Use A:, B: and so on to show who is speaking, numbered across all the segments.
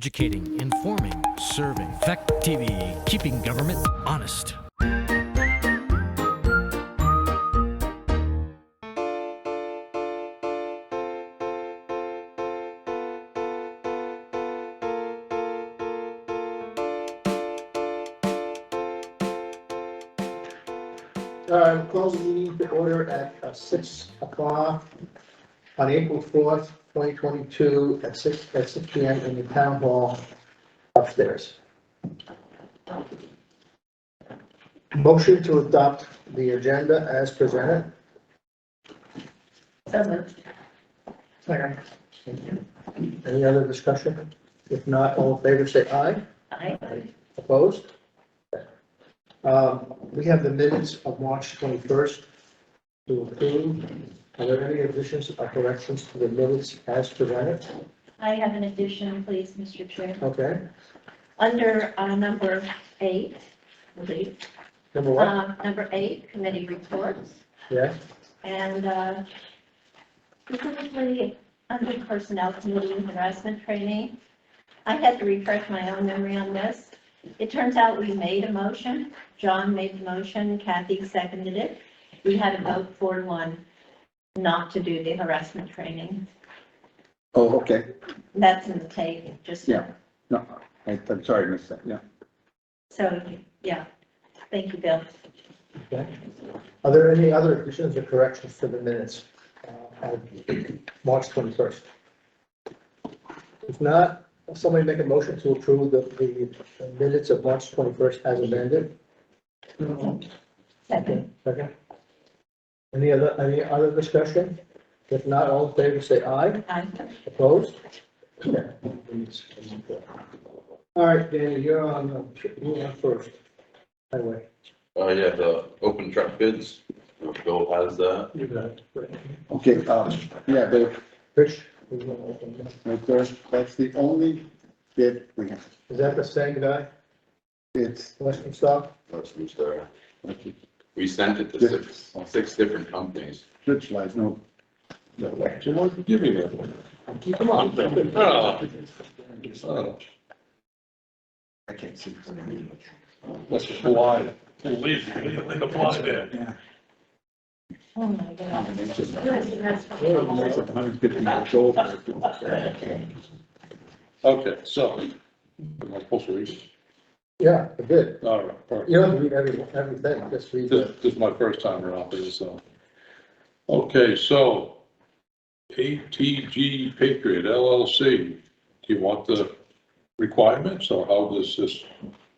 A: Educating, informing, serving. Fact TV, keeping government honest.
B: Uh, close the meeting to order at uh, six o'clock on April fourth, twenty twenty-two, at six, at six P M in the town hall upstairs. Motion to adopt the agenda as presented.
C: So moved.
B: Second. Any other discussion? If not, all in favor, say aye.
C: Aye.
B: Opposed? Um, We have the minutes of March 21st to approve. Are there any additions or corrections to the minutes as presented?
C: I have an addition, please, Mr. Chair.
B: Okay,
C: Under uh, number eight, I believe,
B: number one,
C: um, number eight, committee reports,
B: yeah,
C: and uh, specifically under personnel committee and harassment training. I had to refresh my own memory on this. It turns out we made a motion. John made the motion, Kathy seconded it. We had a vote four to one not to do the harassment training.
D: Oh, okay.
C: That's in the tape, just.
D: Yeah. No, I- I'm sorry, I missed that. Yeah.
C: So, yeah, thank you, Bill.
B: okay. Are there any other additions or corrections to the minutes uh, of March 21st? If not, somebody make a motion to approve the the minutes of March 21st as amended.
C: Second.
B: Second. Any other, any other discussion? If not, all in favor, say aye.
C: Aye.
B: Opposed? All right, Danny, you're on, uh, you're on first. Highway.
E: Uh, yeah, the open truck bids, Bill has that.
B: You got it.
D: Okay, um, yeah, but
B: Rich? you wanna open it?
D: right there, that's the only bid we have.
B: Is that the same guy,
D: It's,
B: Western Star?
E: That's who's there.
D: it's
E: We sent it to six, six different companies.
D: lights, no. no way.
E: Give me that one. Come on. Oh.
D: I can't see.
F: Let's apply. Leave, leave, leave, apply there.
D: Yeah.
C: Oh, my God.
D: It's just- it's
C: Yes,
D: like 150 years old.
F: Okay, so. Am I supposed to read?
B: Yeah, I did.
F: All right, all right.
B: You don't read every, everything, just read the,
F: This this is my first time around this, so. Okay, so ATG Patriot LLC, do you want the requirements or how does this,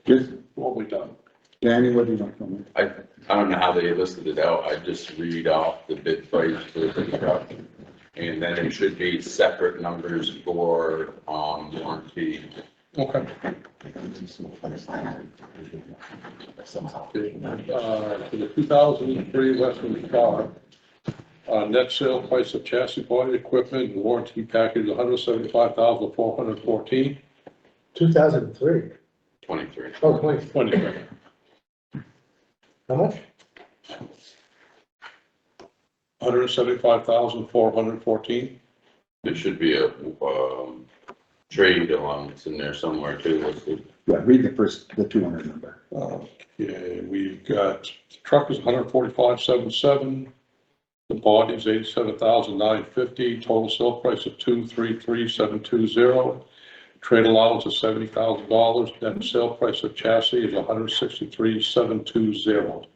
D: Just,
F: what we done?
D: Danny, what do you want from me?
E: I, I don't know how they listed it out. I just read off the bid price for the truck. And then it should be separate numbers for, um, warranty.
F: Okay. Uh, For the 2003 Western car, uh, net sale price of chassis body equipment and warranty package, $175,414.
B: two thousand and three.
E: Twenty-three.
B: Oh, twenty,
F: Wait a minute.
B: how much?
F: $175,414.
E: There should be a, um, trade allowance in there somewhere too listed.
D: Yeah, read the first, the 200 number.
F: Okay, we've got, the truck is 145,77. The body is 87,950. Total sale price of 233,720. Trade allowance of $70,000. Net sale price of chassis is 163,720.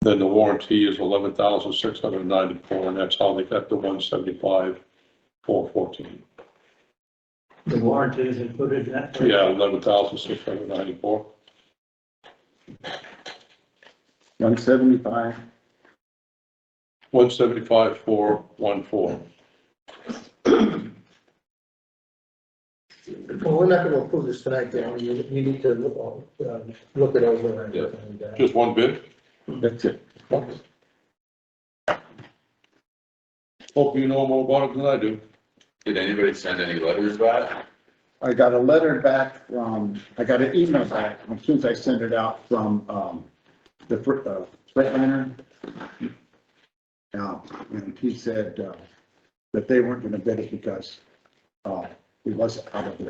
F: Then the warranty is 11,694, and that's how they got the 175,414.
G: The warranty is included in that?
F: Yeah, 11,694.
D: 175,
F: One seventy-five, four, one, four.
B: Well, we're not gonna approve this tonight, Danny, you, you need to look, uh, look it over and-
E: Yeah.
B: and, uh,
F: Just one bid?
D: that's it.
F: Hope you know more about it than I do.
E: Did anybody send any letters back?
D: I got a letter back from, I got an email back as soon as I sent it out from, um, the, fr- uh, Freightliner. Now, and he said, uh, that they weren't gonna bid it because, uh, it wasn't out of their